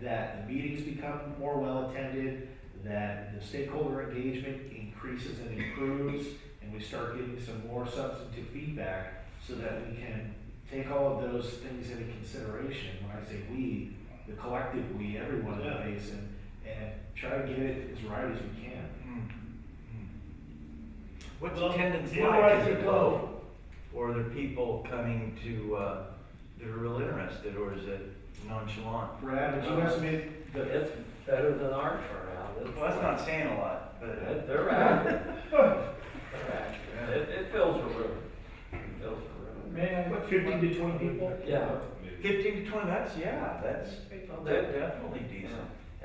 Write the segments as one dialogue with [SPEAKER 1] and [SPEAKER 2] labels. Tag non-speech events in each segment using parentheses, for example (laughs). [SPEAKER 1] that the meetings become more well-attended, that the stakeholder engagement increases and improves, and we start getting some more substantive feedback so that we can take all of those things into consideration. When I say we, the collective we, everyone in the
[SPEAKER 2] Yeah.
[SPEAKER 1] basin, and try to get it as right as we can.
[SPEAKER 3] Hmm, What's
[SPEAKER 2] Well,
[SPEAKER 3] attendance
[SPEAKER 2] you know
[SPEAKER 3] like?
[SPEAKER 2] where I
[SPEAKER 3] Is
[SPEAKER 2] could
[SPEAKER 3] it
[SPEAKER 2] go.
[SPEAKER 3] low? Or are there people coming to, uh, that are real interested, or is it nonchalant?
[SPEAKER 1] Brad, would
[SPEAKER 4] Uh,
[SPEAKER 1] you estimate the
[SPEAKER 5] It's better than our turnout. It's
[SPEAKER 3] Well, that's
[SPEAKER 5] like-
[SPEAKER 3] not saying a lot, but.
[SPEAKER 5] They're they're active. They're active. It, it fills a room. It fills a room.
[SPEAKER 1] What, fifteen to twenty people?
[SPEAKER 5] Yeah.
[SPEAKER 3] Fifteen to twenty, that's, yeah, that's, that's definitely decent.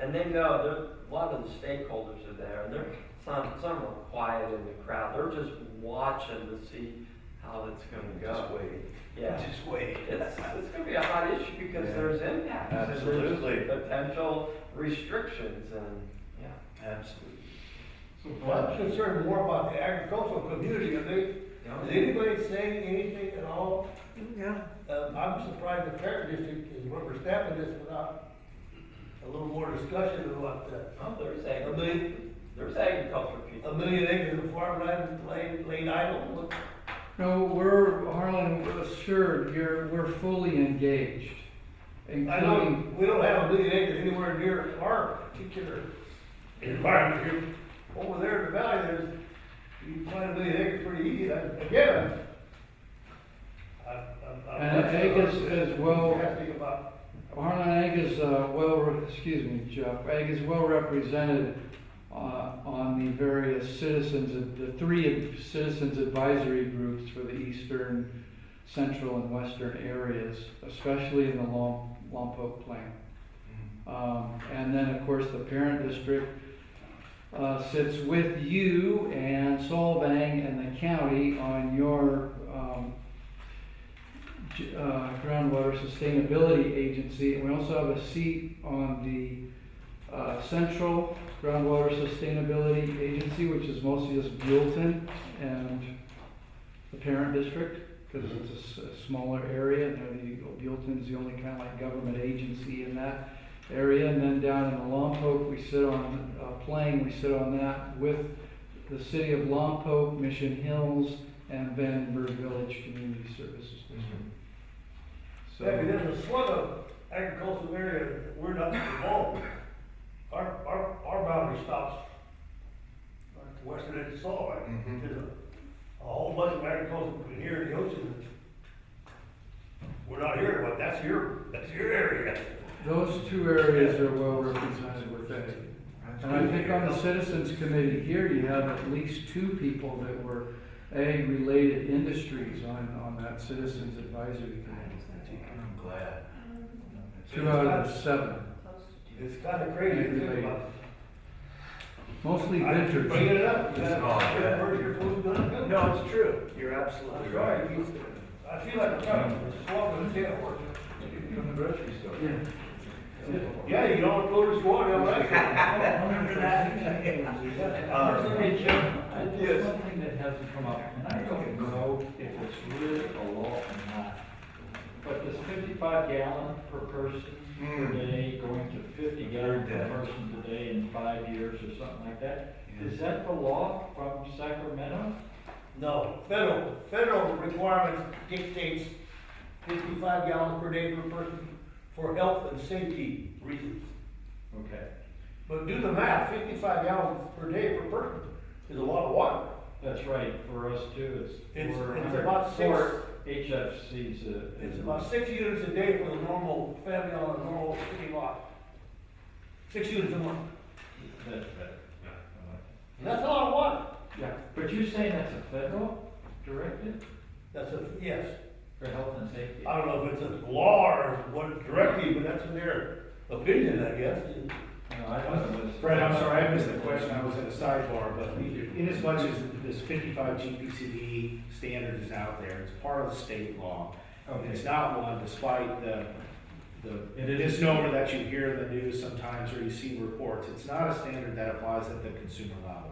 [SPEAKER 5] And they know, there, a lot of the stakeholders are there, and they're, some, some are quiet in the crowd, they're just watching to see how it's gonna
[SPEAKER 3] Just
[SPEAKER 5] go.
[SPEAKER 3] wait,
[SPEAKER 5] Yeah,
[SPEAKER 3] just wait.
[SPEAKER 5] it's, it's gonna be a hot issue because
[SPEAKER 3] Yeah.
[SPEAKER 5] there's impacts. and there's
[SPEAKER 3] Absolutely.
[SPEAKER 5] Potential restrictions and, yeah.
[SPEAKER 3] Absolutely.
[SPEAKER 6] Well, I'm concerned more about the agricultural community, are they, is anybody saying anything at all?
[SPEAKER 3] Yeah.
[SPEAKER 6] Uh, I'm surprised the parent district is overstepping this without a little more discussion about that.
[SPEAKER 5] Oh, there's
[SPEAKER 6] A
[SPEAKER 5] agriculture,
[SPEAKER 6] million,
[SPEAKER 5] there's agriculture people.
[SPEAKER 6] a million acres of farmland laid, laid idle, what-
[SPEAKER 7] No, we're, Harlan, assured, you're, we're fully engaged,
[SPEAKER 6] I know,
[SPEAKER 7] including,
[SPEAKER 6] we don't have a million acres anywhere near our particular environment here. Over there in the valley, there's, you can find a million acres pretty easy, and again, I, I, I.
[SPEAKER 7] And I think it's- it's well-
[SPEAKER 6] Asking about,
[SPEAKER 7] Harlan Ag is, uh, well, re- excuse me, Jeff, Ag is well represented, uh, on the various citizens, the three citizens advisory groups for the eastern, central, and western areas, especially in the Lom- Lompoc Plain. Um, and then, of course, the parent district, uh, sits with you and Solvang and the county on your, um, j- uh, groundwater sustainability agency. And we also have a seat on the, uh, central groundwater sustainability agency, which is mostly just Buellton and the parent district, because it's a s- a smaller area, and they're the, Buellton's the only kind of like government agency in that area, and then down in the Lompoc, we sit on, uh, Plain, we sit on that with the city of Lompoc, Mission Hills, and Vandenberg Village Community Services District.
[SPEAKER 3] Mm-hmm.
[SPEAKER 7] So,
[SPEAKER 6] maybe there's a slug of agricultural area that we're not involved with. Our, our, our boundary stops at the western edge of Salt Lake.
[SPEAKER 3] Mhm.
[SPEAKER 6] There's a, a whole bunch of agriculture between here and the ocean. We're not here, but that's your, that's your area.
[SPEAKER 7] those two areas are well represented with that. And I think on the citizens committee here, you have at least two people that were ag-related industries on, on that citizens advisory committee.
[SPEAKER 3] I'm glad.
[SPEAKER 7] Two out of the seven,
[SPEAKER 6] It's kinda crazy to think about.
[SPEAKER 7] mostly
[SPEAKER 6] I keep Bringing
[SPEAKER 7] ventures.
[SPEAKER 6] it up.
[SPEAKER 3] It's all good.
[SPEAKER 6] Where's your food gonna go?
[SPEAKER 3] No, it's true. You're absolutely
[SPEAKER 6] I'm
[SPEAKER 3] right.
[SPEAKER 6] sorry, you- I feel like I'm trying to swallow the tail horse.
[SPEAKER 3] From the grocery store.
[SPEAKER 7] Yeah.
[SPEAKER 6] Yeah, you don't go to swallow, I'm (laughs) right.
[SPEAKER 3] Remember that?
[SPEAKER 4] Hey, Jim, there's one thing that hasn't come up, and I don't know if it's really a law or not. But this fifty-five gallon per person per
[SPEAKER 3] Hmm.
[SPEAKER 4] day, going to fifty
[SPEAKER 3] I've
[SPEAKER 4] gallon
[SPEAKER 3] heard
[SPEAKER 4] per
[SPEAKER 3] that.
[SPEAKER 4] person today in five years or something like that, is that the law from Sacramento?
[SPEAKER 6] No, federal, federal requirements dictates fifty-five gallons per day per person for health and safety reasons.
[SPEAKER 4] Okay,
[SPEAKER 6] But do the math, fifty-five gallons per day per person is a lot of water.
[SPEAKER 4] that's right, for us too, it's
[SPEAKER 6] It's-
[SPEAKER 4] four
[SPEAKER 6] it's
[SPEAKER 4] hundred,
[SPEAKER 6] about six-
[SPEAKER 4] four HFCs a.
[SPEAKER 6] It's about six units a day for the normal family on a normal city lot. Six units a month,
[SPEAKER 4] That's better, yeah, I like it.
[SPEAKER 6] and that's a lot of water.
[SPEAKER 4] Yeah, but you're saying that's a federal directive
[SPEAKER 6] That's a, yes,
[SPEAKER 4] for health and safety?
[SPEAKER 6] I don't know if it's a law or what directly, but that's in their opinion, I guess.
[SPEAKER 4] No, I thought it was.
[SPEAKER 1] Brett, I'm sorry, I missed the question, I was in a sidebar, but inasmuch as this fifty-five GPCD standard is out there, it's part of the state law. And
[SPEAKER 4] Okay.
[SPEAKER 1] It's not one despite the, the
[SPEAKER 4] It is.
[SPEAKER 1] misnomer that you hear in the news sometimes or you see reports. It's not a standard that applies at the consumer level.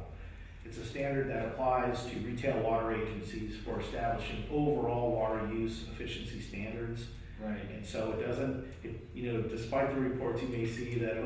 [SPEAKER 1] It's a standard that applies to retail water agencies for establishing overall water use efficiency standards.
[SPEAKER 4] Right.
[SPEAKER 1] And so it doesn't, it- you know, despite the reports you may see that,